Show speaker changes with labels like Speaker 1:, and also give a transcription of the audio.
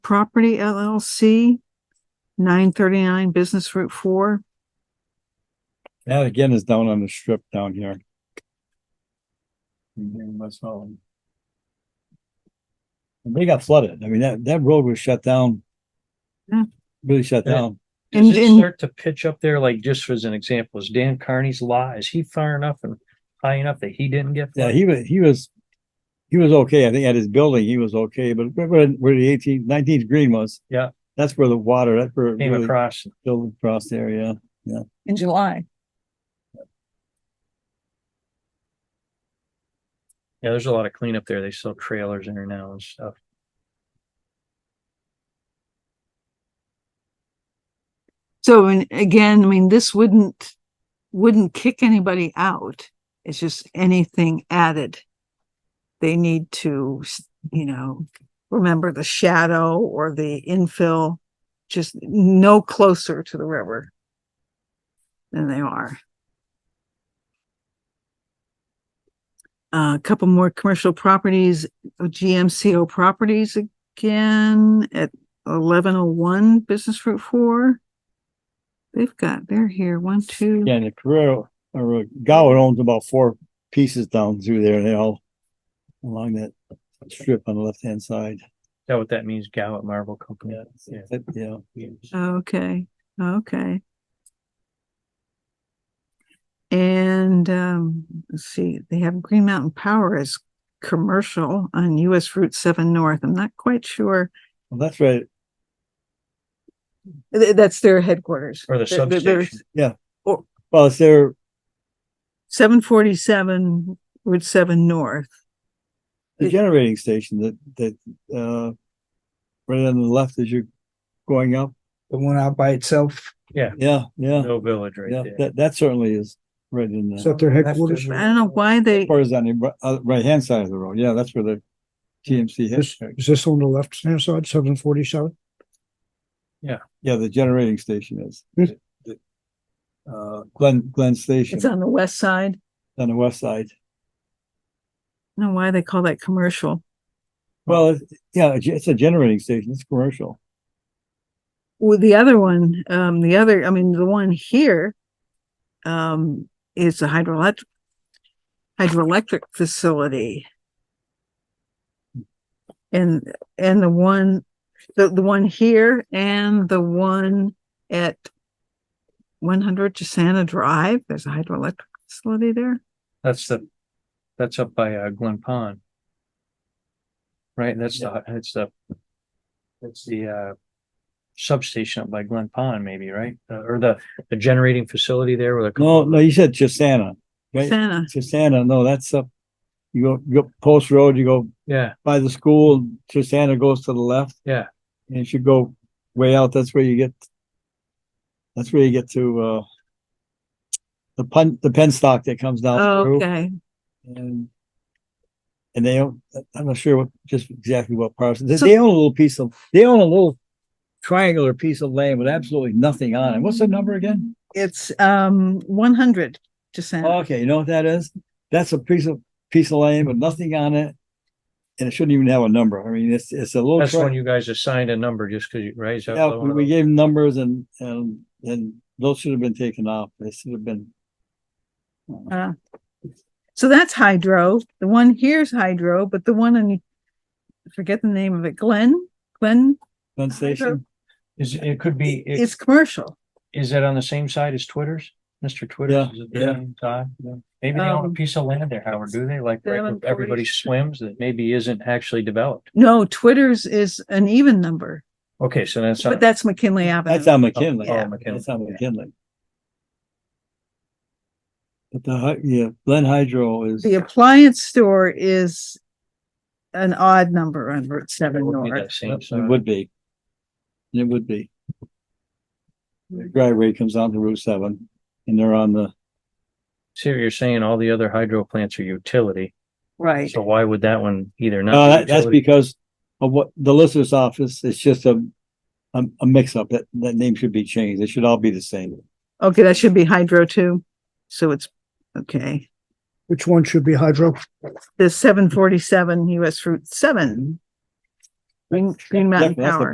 Speaker 1: Property LLC, nine thirty-nine Business Route Four.
Speaker 2: That again is down on the strip down here. In here in West Holland. And They got flooded. I mean, that, that road was shut down.
Speaker 1: Yeah.
Speaker 2: Really shut
Speaker 3: Yeah.
Speaker 2: down.
Speaker 1: And-
Speaker 3: Does it
Speaker 1: and-
Speaker 3: start to pitch up there? Like just as an example, is Dan Carney's lot, is he far enough and high enough that he didn't get?
Speaker 2: Yeah,
Speaker 3: flooded?
Speaker 2: he was, he was, he was okay. I think at his building, he was okay, but where- where, where the 18th 19th green was.
Speaker 3: Yeah.
Speaker 2: That's where the water, that's where it
Speaker 3: Came
Speaker 2: really
Speaker 3: across.
Speaker 2: filled across there, yeah.
Speaker 4: in July.
Speaker 3: Yeah, there's a lot of cleanup there. They sell trailers in there now and stuff.
Speaker 1: So, and again, I mean, this wouldn't, wouldn't kick anybody out. It's just anything added. They need to, you know, remember the shadow or the infill, just no closer to the river than they are. Uh, A couple more commercial properties, GMCO properties again at eleven oh one Business Route Four. They've got, they're here, one, two,
Speaker 2: Yeah, and the Carrero, or Gowan owns about four pieces down through there and they all along that strip on the left-hand side.
Speaker 3: Is that what that means? Gallup Marble Company? Yeah.
Speaker 2: That- Yeah.
Speaker 1: okay, okay. And, um, let's see, they have Green Mountain Power as commercial on US Route seven North. I'm not quite sure.
Speaker 2: Well, that's right.
Speaker 1: Th- That's their headquarters.
Speaker 3: Or the
Speaker 1: Th- th- there's
Speaker 3: substation.
Speaker 2: Well, it's there,
Speaker 1: Seven forty-seven Route seven North.
Speaker 2: the
Speaker 1: It-
Speaker 2: generating station that, that, uh, right on the left as you're going up.
Speaker 5: the one out by itself.
Speaker 2: Yeah, yeah,
Speaker 3: No village
Speaker 2: yeah.
Speaker 3: right there.
Speaker 2: That, that certainly is right in
Speaker 5: Is
Speaker 2: the,
Speaker 5: that their headquarters?
Speaker 1: I don't know why they,
Speaker 2: or is on the ri- uh, right-hand side of the road. Yeah, that's where the TMC
Speaker 5: This,
Speaker 2: headquarters.
Speaker 5: is this on the left hand side, seven forty seven?
Speaker 2: Yeah, the generating station is.
Speaker 5: Yes.
Speaker 2: The- Uh, Glen, Glen Station
Speaker 1: it's on the west side.
Speaker 2: on the west side.
Speaker 1: I don't know why they call that commercial.
Speaker 2: Well, it's- yeah, it's- it's a generating station. It's commercial.
Speaker 1: Well, the other one, um, the other, I mean, the one here, um, is a hydroelectric hydroelectric facility. And, and the one, the, the one here and the one at one hundred Chisana Drive, there's a hydroelectric facility there.
Speaker 3: That's the, that's up by uh, Glen Pond. Right? That's the, that's the, that's the, uh, substation up by Glen Pond maybe, right? Uh, Or the, the generating facility there with a.
Speaker 2: No, no, you said Chisana, right?
Speaker 1: Chisana,
Speaker 2: Chisana, no, that's up, you go, you go Post Road, you go
Speaker 3: Yeah,
Speaker 2: by the school, Chisana goes to the left.
Speaker 3: Yeah.
Speaker 2: And if you go way out, that's where you get, that's where you get to, uh, the pun, the penstock that comes down through
Speaker 1: Oh, okay.
Speaker 2: and and they own, I'm not sure what, just exactly what parcel, they,
Speaker 1: So-
Speaker 2: they own a little piece of, they own a little triangular piece of land with absolutely nothing on it. What's the number again?
Speaker 1: It's, um, one hundred Chisana.
Speaker 2: Okay, you know what that is? That's a piece of, piece of land with nothing on it. And it shouldn't even have a number. I mean, it's, it's a little.
Speaker 3: that's
Speaker 2: tri-
Speaker 3: when you guys assigned a number just because you raised that.
Speaker 2: Yeah,
Speaker 3: low
Speaker 2: we
Speaker 3: and
Speaker 2: we
Speaker 3: low.
Speaker 2: gave them numbers and, and, and those should have been taken off. They should have been.
Speaker 1: So that's hydro. The one here's hydro, but the one on, forget the name of it, Glen, Glen
Speaker 2: Glen Station,
Speaker 3: Is, it could be, it-
Speaker 1: is commercial.
Speaker 3: is that on the same side as Twitter's? Mr. Twitter's?
Speaker 2: Yeah,
Speaker 3: is it
Speaker 2: yeah.
Speaker 3: the same side? Maybe they own a
Speaker 1: Um,
Speaker 3: piece of land there, Howard, do they? Like, right where
Speaker 1: 740.
Speaker 3: everybody swims that maybe isn't actually developed.
Speaker 1: No, Twitter's is an even number,
Speaker 3: Okay, so that's.
Speaker 1: but
Speaker 3: not-
Speaker 1: that's McKinley
Speaker 2: that's
Speaker 1: Avenue.
Speaker 2: on McKinley.
Speaker 3: Oh, McKinley,
Speaker 2: That's on
Speaker 3: yeah.
Speaker 2: McKinley. But the, hy- yeah, Glen Hydro is,
Speaker 1: The appliance store is an odd number on Route
Speaker 3: It
Speaker 1: seven
Speaker 3: would be
Speaker 1: north.
Speaker 3: that same
Speaker 2: it
Speaker 3: side.
Speaker 2: would be. It would be. The driveway comes onto Route seven and they're on the,
Speaker 3: See what you're saying? All the other hydro plants are utility.
Speaker 1: Right.
Speaker 3: So why would that one either not?
Speaker 2: No,
Speaker 3: be
Speaker 2: Uh, that, that's
Speaker 3: utility?
Speaker 2: because of what the listener's office, it's just a, a, a mix up. That, that name should be changed. They should all be the same.
Speaker 1: Okay, that should be hydro too. So it's, okay.
Speaker 5: Which one should be hydro?
Speaker 1: The seven forty-seven US Route seven. Green, Green Mountain
Speaker 2: Definitely, that's the
Speaker 1: Power.